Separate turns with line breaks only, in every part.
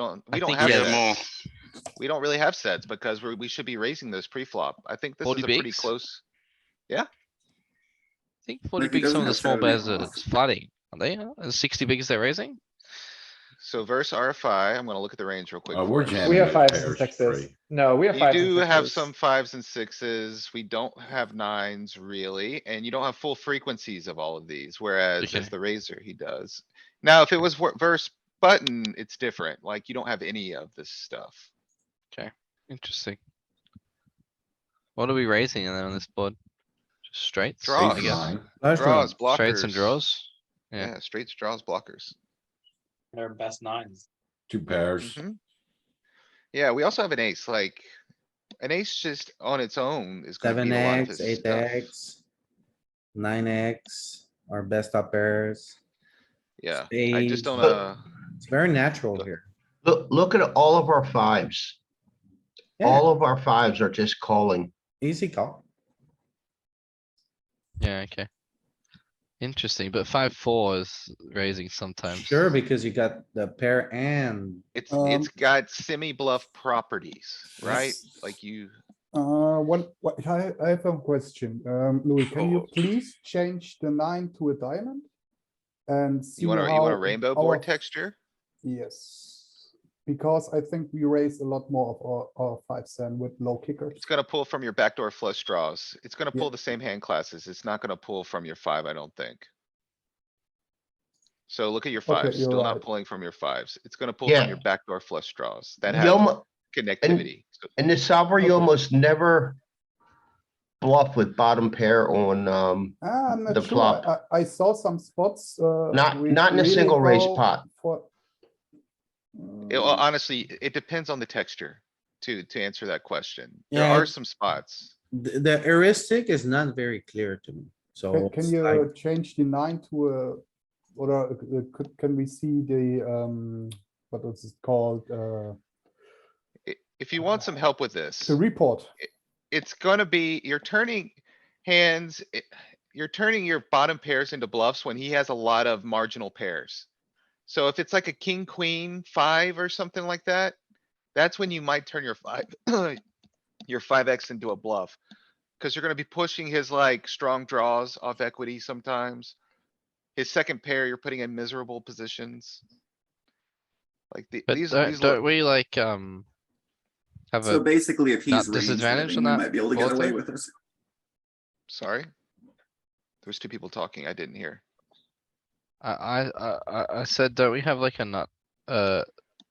Don't,
I
we don't
think
have,
you
Yeah,
have-
sets.
more.
we don't really have sets because we're, we should be raising those pre-flop. I think this is
Forty
a pretty
bigs?
close.
I think forty
Like, it
bigs, some
doesn't
of the small bears
necessarily
are
cost.
flooding, are they? huh? And sixty bigs they're raising?
So verse RFI, I'm gonna look at the range real quick.
Uh, we're
first.
jamming.
We have
it
fives and
pairs
sixes.
free.
No, we have
You
fives. and
do have
sixes.
some fives and sixes. We don't have nines really, and you don't have full frequencies of all of these, whereas
Okay.
as the razor, he does. Now, if it was wor- verse button, it's different. Like you don't have any of this stuff.
Interesting. What are we raising then on this board? Just straights?
Draw.
I
Ace
guess.
nine.
Draws,
Straights and
blockers.
draws? yeah.
Yeah, straights, draws, blockers.
Their best nines.
Two pairs.
Mhm. Yeah, we also have an ace, like, an ace just on its own is gonna
Seven
beat a lot of
X,
his
eight
stuff.
X, nine X, our best up pairs.
Yeah, I just
spades.
don't, uh,
It's very natural here.
Look, look at all of our fives.
Yeah,
All of our fives are just calling.
easy call.
Yeah, okay. Interesting, but five, four is raising sometimes.
Sure, because you got the pair and
it's,
Um,
it's got semi bluff properties, right?
Yes.
Like you,
Uh, what, what, I, I have a question. Um, Louis, can you
Oh.
Sure.
please change the nine to a diamond? And see
you want a, you
how
want a rainbow board
our-
texture?
Yes, because I think we raise a lot more of our, our fives than with low kickers.
It's gonna pull from your backdoor flush draws. It's gonna
Yeah.
pull the same hand classes. It's not gonna pull from your five, I don't think. So look at your
Okay,
fives,
you're
still not
right.
pulling from your fives. It's gonna pull from
Yeah.
your backdoor flush draws that
You
have
almo-
connectivity. So-
In the solver,
Okay.
you almost never bluff with bottom pair on, um,
Ah, I'm
The
not sure.
flop.
I, I saw some spots, uh.
not,
we
not in a
really
single raise
go
pot.
For. uh,
It- uh, well,
Mm-hmm.
honestly, it depends on the texture to, to answer that question. There are
Yeah.
some spots.
the, the heuristic is not very clear to me,
Can,
so.
can
it's like-
you change the nine to a, or uh, uh, could, can we see the, um, what is it called, uh,
I- If you want some help with this,
the report?
it's gonna be, you're turning hands, i- you're turning your bottom pairs into bluffs when he has a lot of marginal pairs. So if it's like a king, queen, five or something like that, that's when you might turn your five, your five X into a bluff. Cause you're gonna be pushing his like strong draws off equity sometimes. His second pair, you're putting in miserable positions. Like the,
But
these,
don't,
these, lo-
don't we like, um, have
So
a,
basically, if
not
he's raised,
disadvantaged
then
on
you
that
might be able to get
bullet
away
there?
with this.
sorry. There's two people talking. I didn't hear.
I, I, I- I, I said, don't we have like a nut, uh,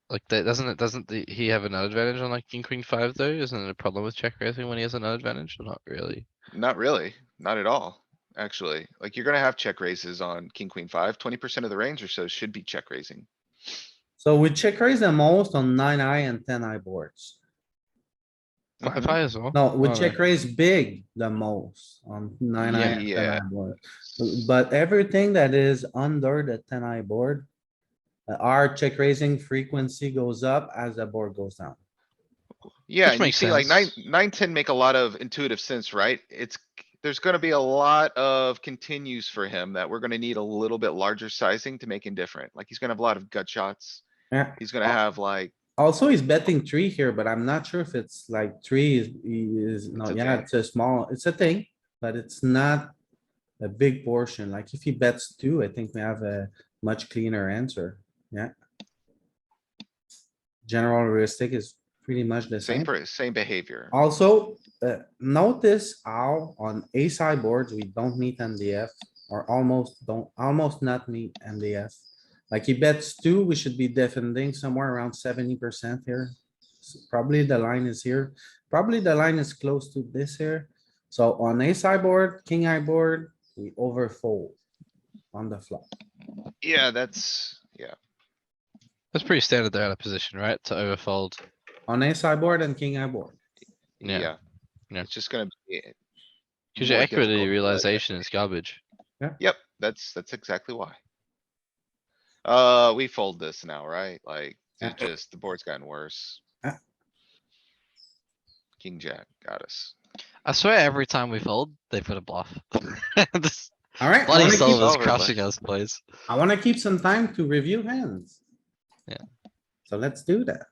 like that, doesn't it, doesn't the, he have an advantage on like king, queen, five though? Isn't it a problem with check raising when he has an advantage or not really?
Not really, not at all, actually. Like, you're gonna have check raises on king, queen, five. Twenty percent of the range or so should be check raising.
So we check raise the most on nine eye and ten eye boards.
Five
Mhm.
high as well?
No, we
Oh,
check raise big the most on nine eye and ten
Yeah.
eye board. But everything that is under the ten eye board. uh, Our check raising frequency goes up as the board goes down.
Yeah,
Which
and you
makes
see like nine,
sense.
nine, ten make a lot of intuitive sense, right? It's, there's gonna be a lot of continues for him that we're gonna need a little bit larger sizing to make him different. Like, he's gonna have a lot of gut shots.
Yeah.
He's gonna have like,
Also, he's betting three here, but I'm not sure if it's like three is, is, no,
It's a
yeah,
thing.
it's a small, it's a thing, but it's not. A big portion, like if he bets two, I think we have a much cleaner answer, yeah. General heuristic is pretty much the
same,
same.
per- same behavior.
Also, uh, notice how on ace high boards, we don't need MDF or almost don't, almost not need MDF. Like he bets two, we should be defending somewhere around seventy percent here. S- Probably the line is here, probably the line is close to this here. So on ace high board, king high board, we overfold on the flop.
Yeah, that's, yeah,
That's pretty standard there out of position, right? To overfold.
On ace high board and king high board.
Yeah.
yeah.
Yeah.
It's just gonna be.
Cause your
more
equity
difficult, but-
realization is garbage.
Yep, that's, that's exactly why. Uh, we fold this now, right? Like,
Yeah.
it just, the board's gotten worse.
Yeah.
King, jack, got us.
I swear every time we fold, they put a bluff. This
Alright, I
Bloody
wanna keep-
Sullivan's
over, but-
crushing us, please.
I wanna keep some time to review hands.
Yeah.
So let's do that.